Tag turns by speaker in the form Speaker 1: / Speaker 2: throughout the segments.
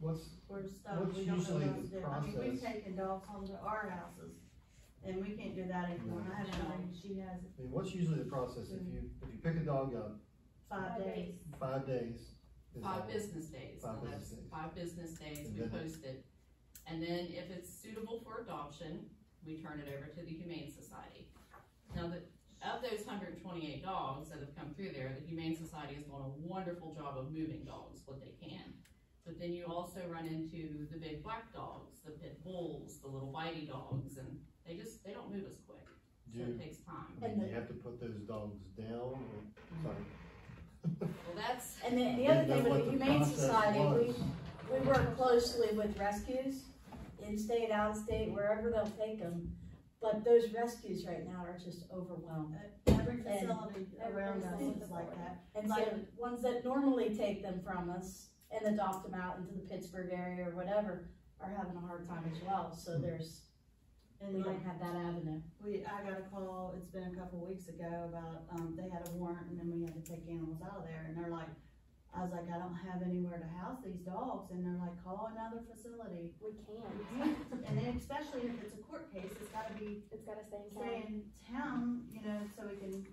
Speaker 1: what's,
Speaker 2: we're stuck,
Speaker 1: What's
Speaker 2: we don't know
Speaker 1: usually
Speaker 2: what to
Speaker 1: the
Speaker 2: do. I mean, we've
Speaker 1: process?
Speaker 2: taken dogs home to our houses, and we can't do that anymore, I have one, and she has
Speaker 1: I mean, what's usually the process if you, if you pick a dog up,
Speaker 2: five days.
Speaker 1: five days? is
Speaker 3: Five
Speaker 1: that-
Speaker 3: business days,
Speaker 1: Five
Speaker 3: so that's
Speaker 1: business days.
Speaker 3: five business days,
Speaker 1: And
Speaker 3: we
Speaker 1: then-
Speaker 3: post it. And then if it's suitable for adoption, we turn it over to the Humane Society. Now, the, of those hundred and twenty-eight dogs that have come through there, the Humane Society has done a wonderful job of moving dogs, what they can. But then you also run into the big black dogs, the pit bulls, the little whitey dogs, and they just, they don't move as quick, so
Speaker 1: Do,
Speaker 3: it takes time.
Speaker 1: I mean,
Speaker 4: And
Speaker 1: do
Speaker 4: the-
Speaker 1: you have to put those dogs down or, sorry.
Speaker 3: Well, that's,
Speaker 4: Mm-hmm. And then the
Speaker 1: Didn't
Speaker 4: other
Speaker 1: know
Speaker 4: thing
Speaker 1: what
Speaker 4: with
Speaker 1: the
Speaker 4: the Humane
Speaker 1: process
Speaker 4: Society, we,
Speaker 1: was.
Speaker 4: we work closely with rescues, in-state, out-of-state, wherever they'll take them. But those rescues right now are just overwhelmed.
Speaker 2: Every
Speaker 4: And
Speaker 2: facility around us
Speaker 4: everything.
Speaker 2: is like that.
Speaker 4: And so ones that normally take them from us and adopt them out into the Pittsburgh area or whatever are having a hard time as well. So
Speaker 1: Hmm.
Speaker 4: there's, we
Speaker 2: And like,
Speaker 4: don't have that avenue.
Speaker 2: we, I got a call, it's been a couple weeks ago about, um, they had a warrant and then we had to take animals out of there, and they're like, I was like, I don't have anywhere to house these dogs, and they're like, call another facility.
Speaker 5: We can't.
Speaker 2: And then especially if it's a court case, it's gotta be
Speaker 5: It's gotta stay in
Speaker 2: stay
Speaker 5: town.
Speaker 2: in town, you know, so we can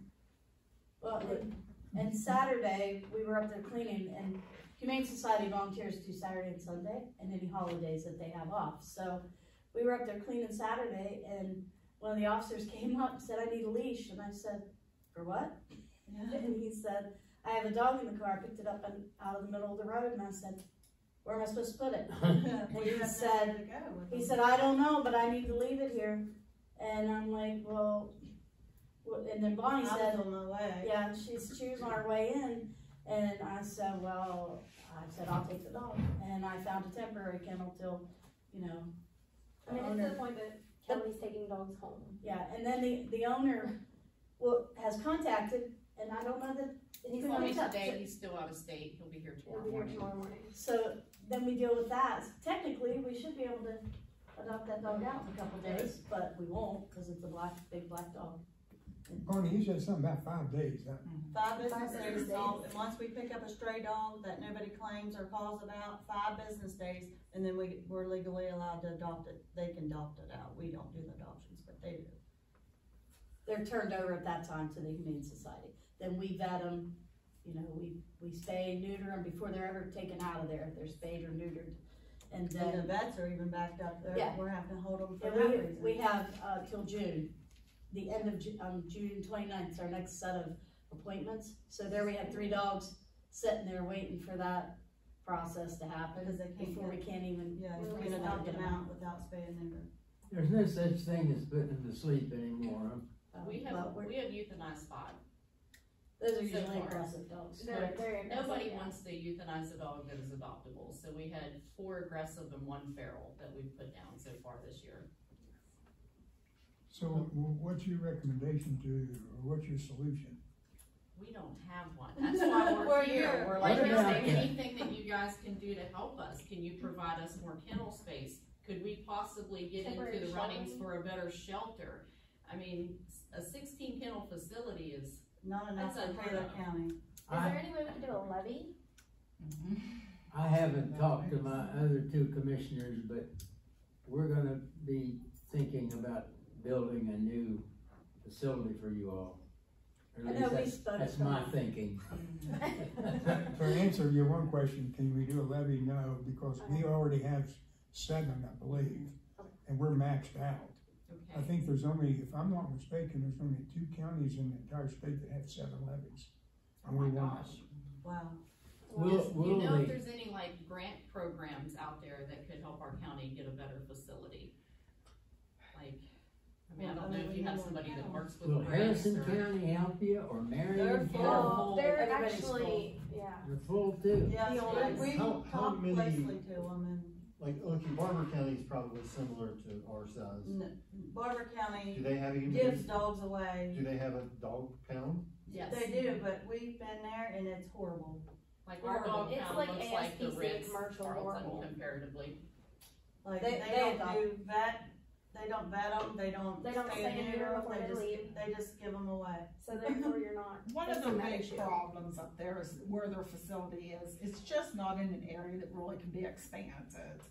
Speaker 4: Well, and- and Saturday, we were up there cleaning and Humane Society volunteers do Saturday and Sunday and any holidays that they have off. So we were up there cleaning Saturday and one of the officers came up and said, I need a leash. And I said, for what?
Speaker 2: Yeah.
Speaker 4: And he said, I have a dog in the car. I picked it up and out of the middle of the road and I said, where am I supposed to put it?
Speaker 2: Well, you
Speaker 4: he
Speaker 2: have
Speaker 4: said-
Speaker 2: nowhere to go with
Speaker 4: He
Speaker 2: them.
Speaker 4: said, I don't know, but I need to leave it here. And I'm like, well, wh- and then
Speaker 2: I
Speaker 4: Bonnie
Speaker 2: was
Speaker 4: said,
Speaker 2: on my way.
Speaker 4: yeah, and she's, she was on her way in, and I said, well, I said, I'll take the dog, and I found a temporary kennel till, you know.
Speaker 5: I mean, it's to the point that Kelly's taking dogs home.
Speaker 4: Yeah, and then the, the owner, well, has contacted, and I don't know that,
Speaker 5: And he's
Speaker 4: Good
Speaker 3: I
Speaker 5: not
Speaker 3: mean,
Speaker 4: morning.
Speaker 5: even,
Speaker 3: today, he's still out of state, he'll be here
Speaker 5: he'll
Speaker 3: tomorrow
Speaker 5: be here
Speaker 3: morning.
Speaker 5: tomorrow morning.
Speaker 4: so then we deal with that. Technically, we should be able to adopt that dog out in a couple days, but we won't, cause it's a black, big black dog.
Speaker 6: Barney, you said something about five days, huh?
Speaker 2: Five
Speaker 5: Five
Speaker 2: business days,
Speaker 5: business
Speaker 2: all-
Speaker 5: days.
Speaker 2: and once we pick up a stray dog that nobody claims or calls about, five business days, and then we, we're legally allowed to adopt it. They can adopt it out. We don't do the adoptions, but they do.
Speaker 4: They're turned over at that time to the Humane Society, then we vet them, you know, we, we spay, neuter them before they're ever taken out of there, if they're spayed or neutered. And
Speaker 2: And the
Speaker 4: then,
Speaker 2: vets are even backed up there.
Speaker 4: Yeah.
Speaker 2: We're having to hold them for
Speaker 4: and
Speaker 2: that
Speaker 4: we, we
Speaker 2: reason.
Speaker 4: have, uh, till June, the end of Ju- um, June twenty-ninth is our next set of appointments. So there we have three dogs sitting there waiting for that process to
Speaker 2: Because
Speaker 4: happen,
Speaker 2: they can't
Speaker 4: before we
Speaker 2: get-
Speaker 4: can't even,
Speaker 2: Yeah,
Speaker 5: we
Speaker 2: we can
Speaker 5: always
Speaker 2: adopt
Speaker 4: get
Speaker 2: them
Speaker 4: them
Speaker 2: out without spay and neuter.
Speaker 7: There's no such thing as putting them to sleep anymore.
Speaker 4: uh,
Speaker 3: We
Speaker 4: but
Speaker 3: have,
Speaker 4: we're,
Speaker 3: we have euthanized five.
Speaker 4: those are
Speaker 3: so
Speaker 4: usually
Speaker 3: far.
Speaker 4: aggressive dogs.
Speaker 5: They're, they're.
Speaker 3: Nobody
Speaker 5: yeah.
Speaker 3: wants to euthanize a dog that is adoptable, so we had four aggressive and one feral that we've put down so far this year.
Speaker 6: So wh- what's your recommendation to, or what's your solution?
Speaker 3: We don't have one, that's why
Speaker 4: We're
Speaker 3: we're
Speaker 4: here.
Speaker 3: here. We're
Speaker 4: What
Speaker 3: like, is
Speaker 6: about
Speaker 3: there
Speaker 6: that?
Speaker 3: anything that you guys can do to help us? Can you provide us more kennel space? Could we possibly get into
Speaker 5: Temporary
Speaker 3: the runnings
Speaker 5: shelter.
Speaker 3: for a better shelter? I mean, s- a sixteen kennel facility is,
Speaker 2: Not enough
Speaker 3: That's
Speaker 2: for Taylor
Speaker 3: unheard of.
Speaker 2: County.
Speaker 5: Is
Speaker 7: I,
Speaker 5: there any way we could do a levy?
Speaker 7: I haven't talked to my other two commissioners, but we're gonna be thinking about building a new facility for you all. Or
Speaker 4: I
Speaker 7: at
Speaker 4: know,
Speaker 7: least
Speaker 4: we
Speaker 7: that's,
Speaker 4: spoke.
Speaker 7: that's my thinking.
Speaker 6: To answer your one question, can we do a levy? No, because we already have seven, I believe, and we're maxed out. I
Speaker 3: okay,
Speaker 6: think there's only, if I'm not mistaken, there's only two counties in the entire state that have seven levies.
Speaker 3: oh my
Speaker 6: we want-
Speaker 3: gosh.
Speaker 2: Wow.
Speaker 7: Will,
Speaker 3: Just, you
Speaker 7: will
Speaker 3: know, if
Speaker 7: the-
Speaker 3: there's any like grant programs out there that could help our county get a better facility? Like, I mean, I don't know if you have somebody that works
Speaker 7: will
Speaker 3: with grants
Speaker 7: Harrison
Speaker 3: or.
Speaker 7: County help you or Marion
Speaker 3: They're full.
Speaker 7: County?
Speaker 5: Oh, they're
Speaker 4: Everybody's
Speaker 5: actually, yeah.
Speaker 7: They're full too.
Speaker 2: Yeah,
Speaker 4: The
Speaker 2: so
Speaker 4: old-
Speaker 2: we
Speaker 1: How- how
Speaker 2: talked
Speaker 1: many-
Speaker 2: closely to them
Speaker 1: Like, okay, Barber County is probably similar to our size.
Speaker 2: and n- Barber
Speaker 1: Do
Speaker 2: County
Speaker 1: they have a
Speaker 2: gives
Speaker 1: humane,
Speaker 2: dogs away.
Speaker 1: do they have a dog pound?
Speaker 3: Yes,
Speaker 2: They do, but we've been there and it's horrible.
Speaker 3: like our dog
Speaker 5: It's
Speaker 3: pound
Speaker 5: like
Speaker 3: looks like the
Speaker 5: ASPCA
Speaker 3: Ritz
Speaker 5: commercial
Speaker 3: Carlton
Speaker 5: normal.
Speaker 3: comparatively.
Speaker 2: Like,
Speaker 4: They-
Speaker 2: they
Speaker 4: they
Speaker 2: don't do vet They don't vet them, they don't
Speaker 5: They don't
Speaker 2: stay
Speaker 5: stay in
Speaker 2: near
Speaker 5: there
Speaker 2: 'em,
Speaker 5: before
Speaker 2: they
Speaker 5: they
Speaker 2: just,
Speaker 5: leave.
Speaker 2: they just give them away.
Speaker 5: So therefore, you're not.
Speaker 8: One of
Speaker 5: That's
Speaker 8: the
Speaker 5: not an
Speaker 8: big
Speaker 5: issue.
Speaker 8: problems up there is where their facility is, it's just not in an area that really can be expanded.